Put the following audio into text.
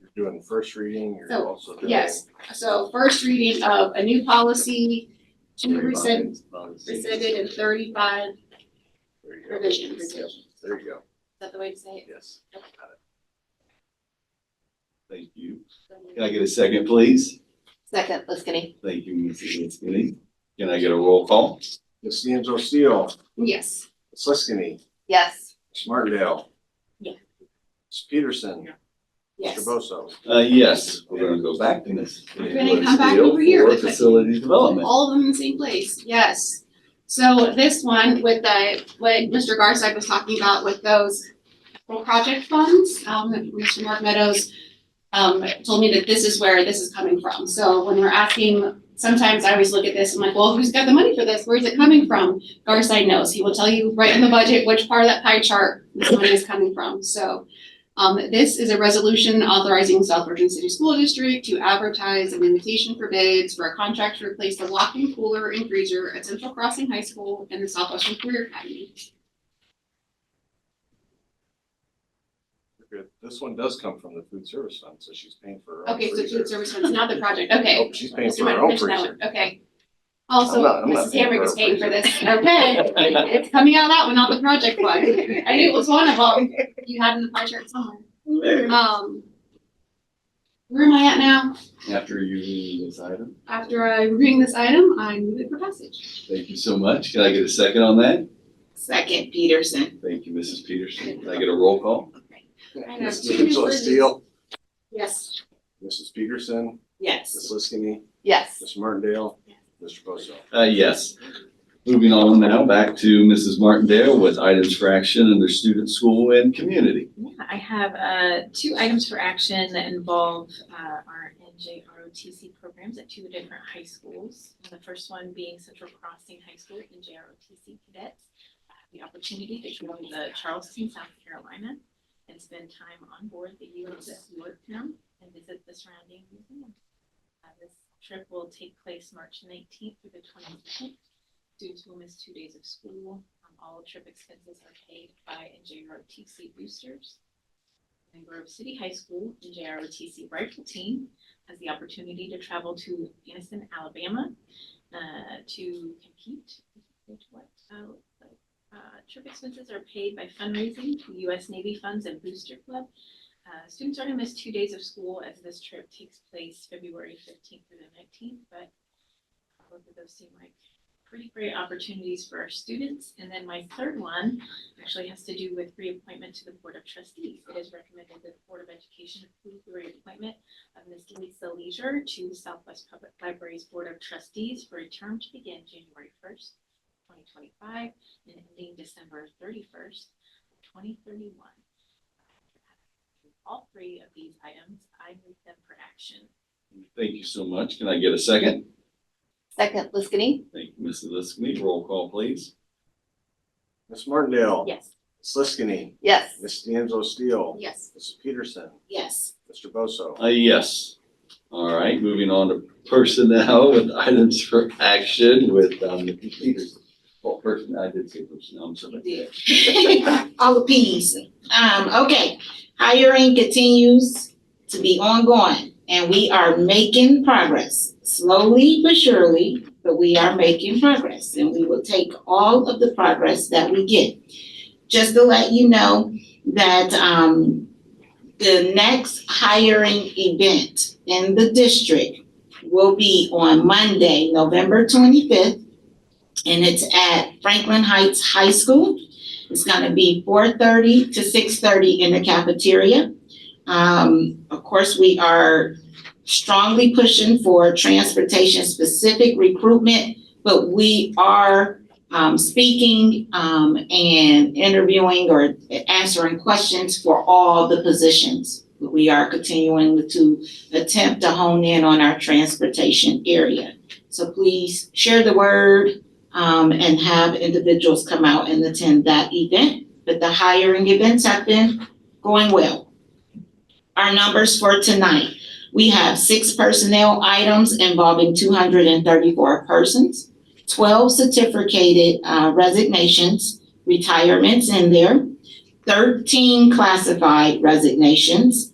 you're doing first reading, you're So, also doing. yes. So first reading of a new policy, two rescind, rescinded and thirty-five is There you go. revisions. Yep, There you go, that the way to say yes. Yep. Got it. Thank you. Can it? I get a second, please? Second, Liskini. Thank you, Mrs. Linsky. Can I get a roll call? Ms. D'Angelo Steele, Yes, Ms. Liskini, Yes. Ms. Martindale. Yeah. Ms. Peterson, yes. Mr. Bosso. Uh, yes, we're gonna go back to Ms. We're gonna come back over here. For facility development. All of them in the same place, yes. So this one with the, what Mr. Garside was talking about with those capital project funds, um, Mr. Mark Meadows um, told me that this is where this is coming from. So when we're asking, sometimes I always look at this, I'm like, well, who's got the money for this? Where's it coming from? Garside knows. He will tell you right in the budget which part of that pie chart this money is coming from. So um, this is a resolution authorizing South Virgin City School District to advertise an invitation for bids for a contract to replace the locking cooler and freezer at Central Crossing High School and the Southwestern Career Academy. Good. This one does come from the food service fund, so she's paying for her own Okay, so freezer. food service funds, not the project, okay. Oh, she's paying Mr. for her Mike own finished that freezer. one. Okay. Also, I'm not- I'm not Mrs. paying for Hamrick her is paying for freezer. this, okay? It's coming out of that one, not the project one. I knew it was one of them you had in the pie chart somewhere. Um, where am I at now? After you read this item, After I reading this item, I move it for passage. thank you so much. Can I get a second on that? Second, Peterson. Thank you, Mrs. Peterson. Can I get a roll call? I know, Ms. two new D'Angelo versions. Steele, Yes. Mrs. Peterson, Yes. Ms. Liskini, Yes. Ms. Martindale, Mr. Bosso. Uh, yes. Moving on now, back to Mrs. Martindale with items for action under student, school, and community. Yeah, I have uh, two items for action that involve uh, our NJROTC programs at two different high schools. And The first one being Central Crossing High School, NJROTC cadets. I have The opportunity to go to Charleston, South Carolina, and spend time on board the USS Yorktown and visit the surrounding museum. Uh, This trip will take place March nineteenth through the twenty-second. Students will miss two days of school. Um, All trip expenses are paid by NJROTC boosters. And Grove City High School, NJROTC rifle team has the opportunity to travel to Anniston, Alabama uh, to compete. Which what? Oh, uh, Trip expenses are paid by fundraising to U.S. Navy funds and Booster Club. Uh, Students are going to miss two days of school as this trip takes place February 15th through the 19th, but both of those seem like pretty great opportunities for our students. And then my third one actually has to do with reappointment to the Board of Trustees. It is recommended that the Board of Education approve the reappointment of Ms. Lisa Leisure to Southwest Public Library's Board of Trustees for a term to begin January first, twenty twenty-five, and ending December thirty-first, twenty thirty-one. All three of these items, I move them for action. Thank you so much. Can I get a second? Second, Liskini. Thank you, Mrs. Liskini. Roll call, please. Ms. Martindale, Yes. Ms. Liskini, Yes. Ms. D'Angelo Steele, Yes. Mrs. Peterson, Yes. Mr. Bosso. Uh, yes. All right, moving on to personnel with items for action with, um, Mrs. Peterson. Well, person, I did say personnel, I'm sorry. All the Ps. Um, okay, hiring continues to be ongoing and we are making progress. Slowly but surely, but we are making progress and we will take all of the progress that we get. Just to let you know that, um, the next hiring event in the district will be on Monday, November twenty-fifth. And it's at Franklin Heights High School. It's gonna be four thirty to six thirty in the cafeteria. Um, of course, we are strongly pushing for transportation-specific recruitment, but we are um, speaking um, and interviewing or answering questions for all the positions. We are continuing to attempt to hone in on our transportation area. So please share the word, um, and have individuals come out and attend that event. But the hiring events have been going well. Our numbers for tonight, we have six personnel items involving two hundred and thirty-four persons, twelve certificated uh, resignations, retirements in there, thirteen classified resignations,